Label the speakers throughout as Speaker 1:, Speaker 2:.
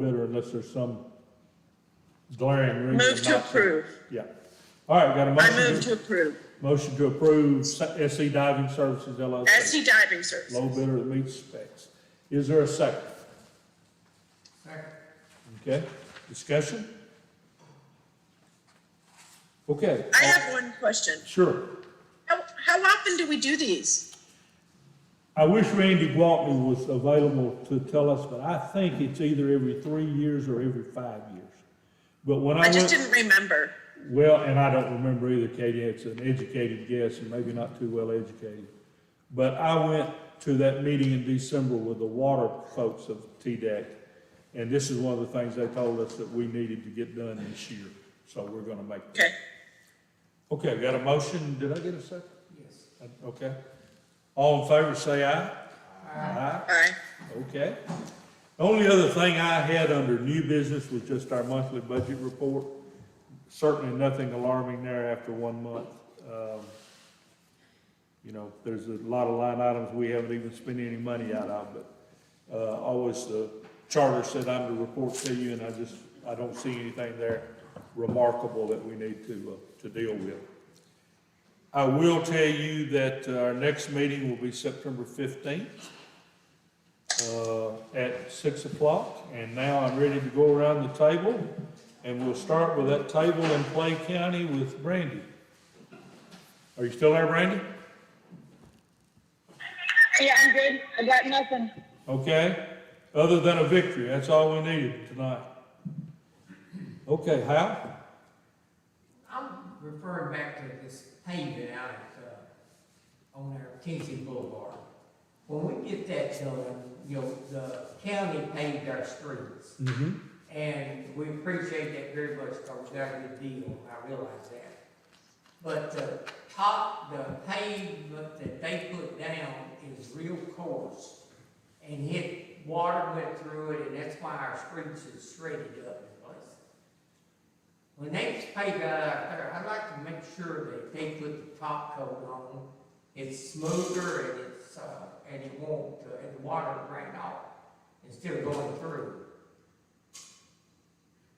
Speaker 1: better unless there's some glaring reason.
Speaker 2: Move to
Speaker 1: not
Speaker 2: approve.
Speaker 1: Yeah. All right, got a
Speaker 2: I move
Speaker 1: motion,
Speaker 2: to approve.
Speaker 1: motion to approve SE Diving Services LLC,
Speaker 2: SC E Diving
Speaker 1: low
Speaker 2: Services.
Speaker 1: bidder that meets specs. Is there a second? Second. Okay, discussion? Okay.
Speaker 2: I have one question.
Speaker 1: Sure.
Speaker 2: How, how often do we do these?
Speaker 1: I wish Randy Gwaltney was available to tell us, but I think it's either every three years or every five years. But when I
Speaker 2: I
Speaker 1: went,
Speaker 2: just didn't remember.
Speaker 1: well, and I don't remember either, Katie, it's an educated guess and maybe not too well educated. But I went to that meeting in December with the water folks of TDEC. And this is one of the things they told us that we needed to get done this year, so we're gonna make.
Speaker 2: Okay.
Speaker 1: Okay, got a motion, did I get a second? Yes. Okay. All in favor, say aye. Aye.
Speaker 2: Aye.
Speaker 1: Okay. The Only other thing I had under new business was just our monthly budget report. Certainly nothing alarming there after one month. Um, You know, there's a lot of line items we haven't even spent any money out of, but, uh, always the charter said I'm to report to you, and I just, I don't see anything there remarkable that we need to, uh, to deal with. I will tell you that uh, our next meeting will be September fifteenth uh, at six o'clock, and now I'm ready to go around the table, and we'll start with that table in Clay County with Brandy. Are you still there, Brandy?
Speaker 3: Yeah, I'm good. I got nothing.
Speaker 1: Okay, other than a victory, that's all we needed tonight. Okay, Hal?
Speaker 4: I'm referring back to this paving out at, uh, on our Tennessee Boulevard. When we get that done, you know, the county paved our streets.
Speaker 1: Mm-hmm.
Speaker 4: And we appreciate that very much, because we got a good deal, I realize that. But the top, the pavement that they put down is real coarse. And hit, water went through it, and that's why our streets is shredded up in places. When they pave out there, I'd like to make sure that they put the top coat on. It's smoother and it's, uh, and it won't, uh, and the water ran off instead of going through.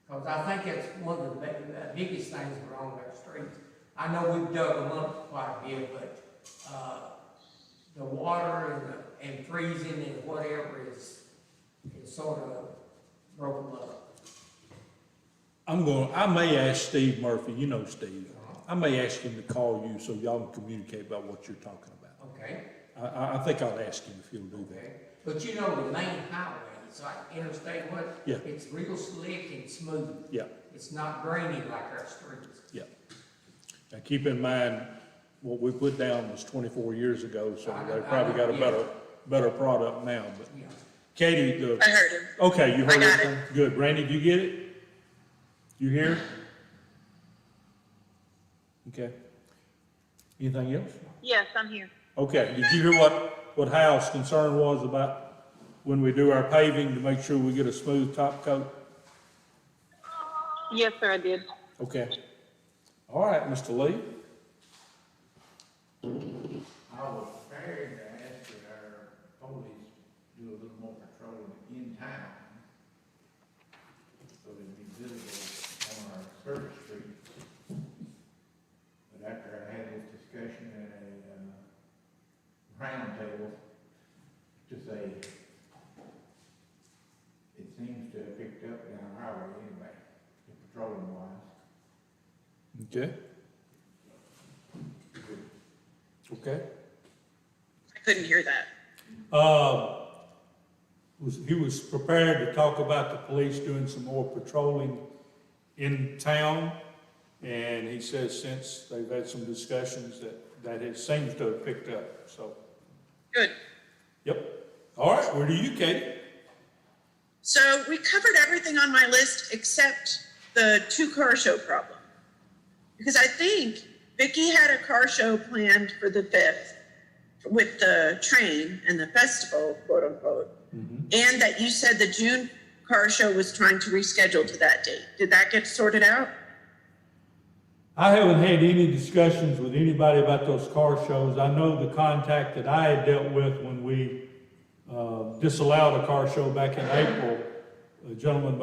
Speaker 4: Because I think that's one of the big- the biggest things wrong with our streets. I know we've dug them up quite a bit, but, uh, the water and, the- and freezing and whatever is, is sort of broken up.
Speaker 1: I'm going, I may ask Steve Murphy, you know Steve, I may ask him to call you so y'all can communicate about what you're talking about.
Speaker 4: Okay,
Speaker 1: I, I, I think I'll ask him if he'll do that.
Speaker 4: okay. But you know, the main highway, it's like interstate what?
Speaker 1: Yeah.
Speaker 4: It's real slick and smooth.
Speaker 1: Yeah.
Speaker 4: It's not grainy like our streets.
Speaker 1: Yeah. Now, keep in mind, what we put down was twenty-four years ago, so
Speaker 4: I know,
Speaker 1: they
Speaker 4: I
Speaker 1: probably
Speaker 4: know,
Speaker 1: got a
Speaker 4: yeah.
Speaker 1: better, better product now, but
Speaker 4: Yeah.
Speaker 1: Katie, the,
Speaker 2: I heard him.
Speaker 1: okay, you
Speaker 2: I
Speaker 1: heard
Speaker 2: got
Speaker 1: everything? Good, Randy, do you get it? You hear? Okay. Anything else?
Speaker 3: Yes, I'm here.
Speaker 1: Okay, did you hear what, what Hal's concern was about when we do our paving to make sure we get a smooth top coat?
Speaker 3: Yes, sir, I did.
Speaker 1: Okay. All right, Mr. Lee?
Speaker 5: I was prepared to ask that our police do a little more patrolling in town. So they'd be visible on our service street. But after I had this discussion at a, uh, roundtable, to say, it seems to have picked up down highway anyway, the patrolling wise.
Speaker 1: Okay. Okay.
Speaker 2: I couldn't hear that.
Speaker 1: Uh, was, he was prepared to talk about the police doing some more patrolling in town. And he says since they've had some discussions that, that it seems to have picked up, so,
Speaker 2: Good.
Speaker 1: yep. All right, where do you, Katie?
Speaker 2: So we covered everything on my list except the two car show problem. Because I think Vicky had a car show planned for the fifth with the train and the festival, quote unquote. And that you said the June car show was trying to reschedule to that date. Did that get sorted out?
Speaker 1: I haven't had any discussions with anybody about those car shows. I know the contact that I had dealt with when we uh, disallowed a car show back in April a gentleman by